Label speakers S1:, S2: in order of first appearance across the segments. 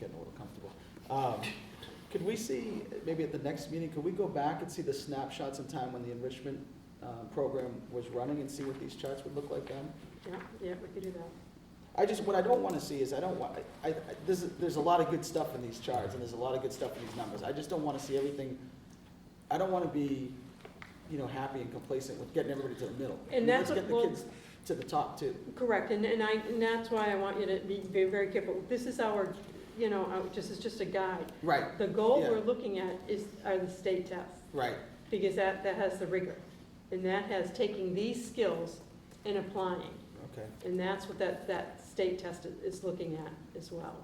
S1: getting a little comfortable. Um, Could we see, maybe at the next meeting, could we go back and see the snapshots in time when the enrichment uh, program was running and see what these charts would look like then?
S2: Yeah, yeah, we could do that.
S1: I just, what I don't want to see is, I don't want, I, I, there's, there's a lot of good stuff in these charts, and there's a lot of good stuff in these numbers. I just don't want to see everything, I don't want to be, you know, happy and complacent with getting everybody to the middle.
S2: And that's
S1: Let's get
S2: what-
S1: the kids to the top too.
S2: Correct, and, and I, and that's why I want you to be, be very careful. This is our, you know, our- just, it's just a guide.
S1: Right,
S2: The goal
S1: Yeah.
S2: we're looking at is, are the state tests,
S1: right,
S2: because that, that has the rigor. And that has taking these skills and applying,
S1: okay.
S2: and that's what that, that state test is- is looking at as well.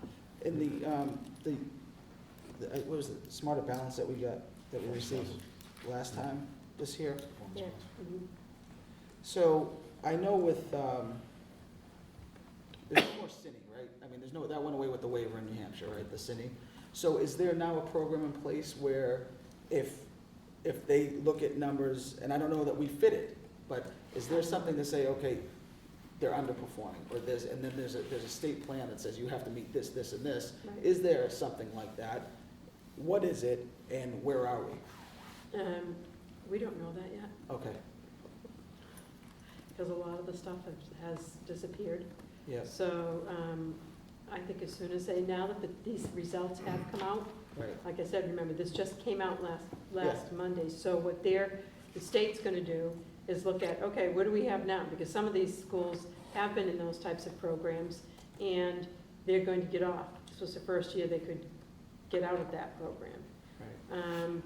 S1: And the, um, the, the- uh, what was it, smarter balance that we got, that we received last time this year?
S2: Yeah. Mhm.
S1: So I know with, um, there's no more cine, right? I mean, there's no, that went away with the waiver in New Hampshire, right, the cine? So is there now a program in place where if, if they look at numbers, and I don't know that we fit it, but is there something to say, okay, they're underperforming, or there's, and then there's a, there's a state plan that says you have to meet this, this, and this?
S2: Right.
S1: Is there something like that? What is it, and where are we?
S2: Um, we don't know that yet,
S1: Okay,
S2: because a lot of the stuff has- has disappeared.
S1: yes,
S2: So, um, I think as soon as they, now that the- these results have come out,
S1: right,
S2: like I said, remember, this just came out last,
S1: Yeah.
S2: last Monday. So what they're, the state's gonna do is look at, okay, what do we have now? Because some of these schools have been in those types of programs, and they're going to get off. This was the first year they could get out of that program.
S1: right.
S2: Um,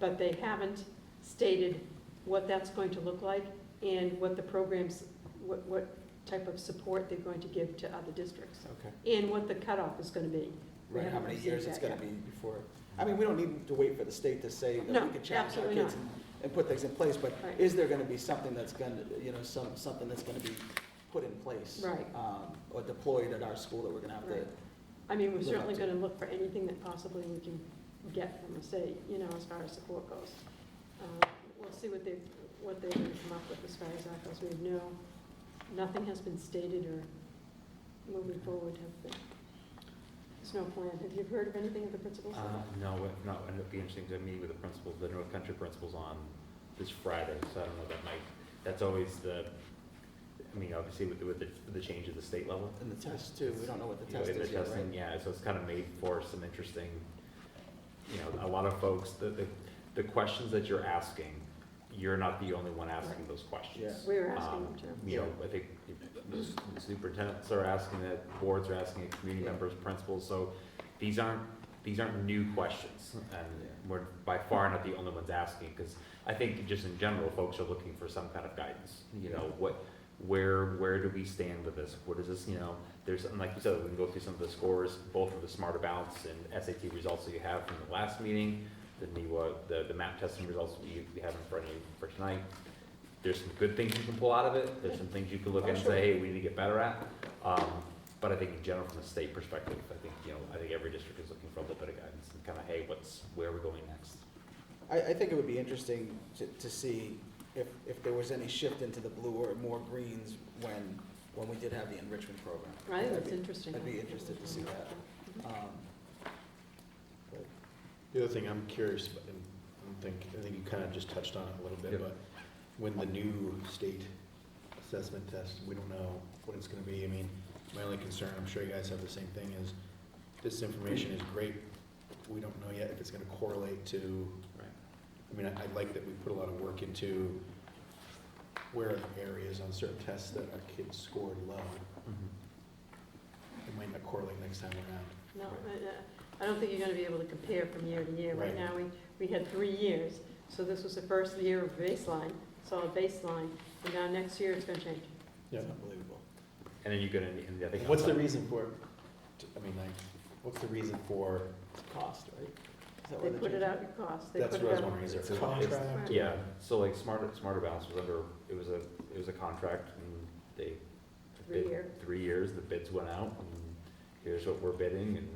S2: But they haven't stated what that's going to look like and what the programs, what, what type of support they're going to give to other districts.
S1: Okay.
S2: And what the cutoff is gonna be. We
S1: Right, how
S2: haven't
S1: many
S2: received
S1: years it's
S2: that
S1: gonna
S2: yet.
S1: be before, I mean, we don't need to wait for the state to say that
S2: No,
S1: we can challenge our
S2: absolutely
S1: kids and, and put things in place, but
S2: Right.
S1: is there gonna be something that's gonna, you know, some, something that's gonna be put in place?
S2: Right.
S1: Um, or deployed at our school that we're gonna have to,
S2: Right. I mean, we're
S1: We'll
S2: certainly
S1: have to-
S2: gonna look for anything that possibly we can get from the state, you know, as far as support goes. Uh, We'll see what they, what they're gonna come up with as far as that goes. We know, nothing has been stated or moving forward have been. There's no plan. Have you heard of anything of the principals?
S3: Uh, no, if not, and it'd be interesting to meet with the principal, the North Country principals on this Friday, so I don't know, that might, that's always the, I mean, obviously with, the- with the, with the change at the state level.
S1: in the test too, we don't know what the
S3: you know,
S1: test
S3: in
S1: is yet,
S3: testing,
S1: right?
S3: Yeah, so it's kind of made for some interesting, you know, a lot of folks, the, the, the questions that you're asking, you're not the only one asking those questions.
S1: Yeah.
S2: We're asking them
S3: Um,
S2: to.
S3: You know, I think the superintendents are asking it, boards are asking it, community
S1: Yeah.
S3: members, principals, so these aren't, these aren't new questions.
S1: Yeah.
S3: And we're by far not the only ones asking, because I think just in general, folks are looking for some kind of guidance. You know, what, where, where do we stand with this? What is this, you know, there's, and like you said, we can go through some of the scores, both of the smarter balance and SAT results that you have from the last meeting, the NEWA, the, the map testing results we, we have in front of you for tonight. There's some good things you can pull out of it, there's some things you can look at and
S2: Oh, sure.
S3: say, hey, we need to get better at. Um, but I think in general, from a state perspective, I think, you know, I think every district is looking for a little bit of guidance and kind of, hey, what's, where are we going next?
S1: I, I think it would be interesting to, to see if, if there was any shift into the blue or more greens when, when we did have the enrichment program.
S2: I think
S1: That'd
S2: that's
S1: be-
S2: interesting.
S1: I'd be interested to see that. um, but-
S4: The other thing I'm curious, about, and I think, I think you kind of just touched on it a little bit,
S3: Yep.
S4: but when the new state assessment test, we don't know what it's gonna be. I mean, my only concern, I'm sure you guys have the same thing, is this information is great. We don't know yet if it's gonna correlate to,
S3: Right.
S4: I mean, I, I like that we put a lot of work into where are the areas on certain tests that our kids scored low.
S2: Mm-hmm.
S4: It might not correlate next time around.
S2: No, I- I I don't think you're gonna be able to compare from year to year. Right
S4: Right.
S2: now, we, we had three years, so this was the first year of baseline, solid baseline, and now next year it's gonna change.
S1: It's unbelievable.
S3: And then you go to, and I think.
S4: What's the
S3: outside-
S4: reason for, I mean, like, what's the reason for
S1: It's cost, right? Is that why
S2: They put
S1: changed
S2: it out in cost. They
S4: That's
S2: put
S4: what I was
S2: it out-
S4: wondering, is it
S3: It's a-
S4: a contract?
S2: it's-
S3: Yeah, so like Smarter, Smarter Balance was under, it was a, it was a contract and they.
S2: Three
S3: bid-
S2: year.
S3: Three years, the bids went out and here's what we're bidding and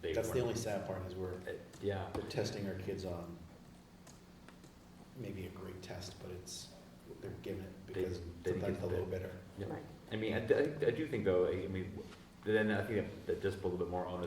S3: they.
S4: That's the
S3: weren't-
S4: only sad part is we're,
S3: Uh, Yeah,
S4: we're testing our kids on maybe a great test, but it's, they're given it
S3: They-
S4: because
S3: they think
S4: sometimes
S3: it's
S4: the low
S3: bad.
S4: bidder.
S3: Yeah.
S2: Right.
S3: I mean, I, I I do think though, I mean, then I think that- that just put a little bit more onus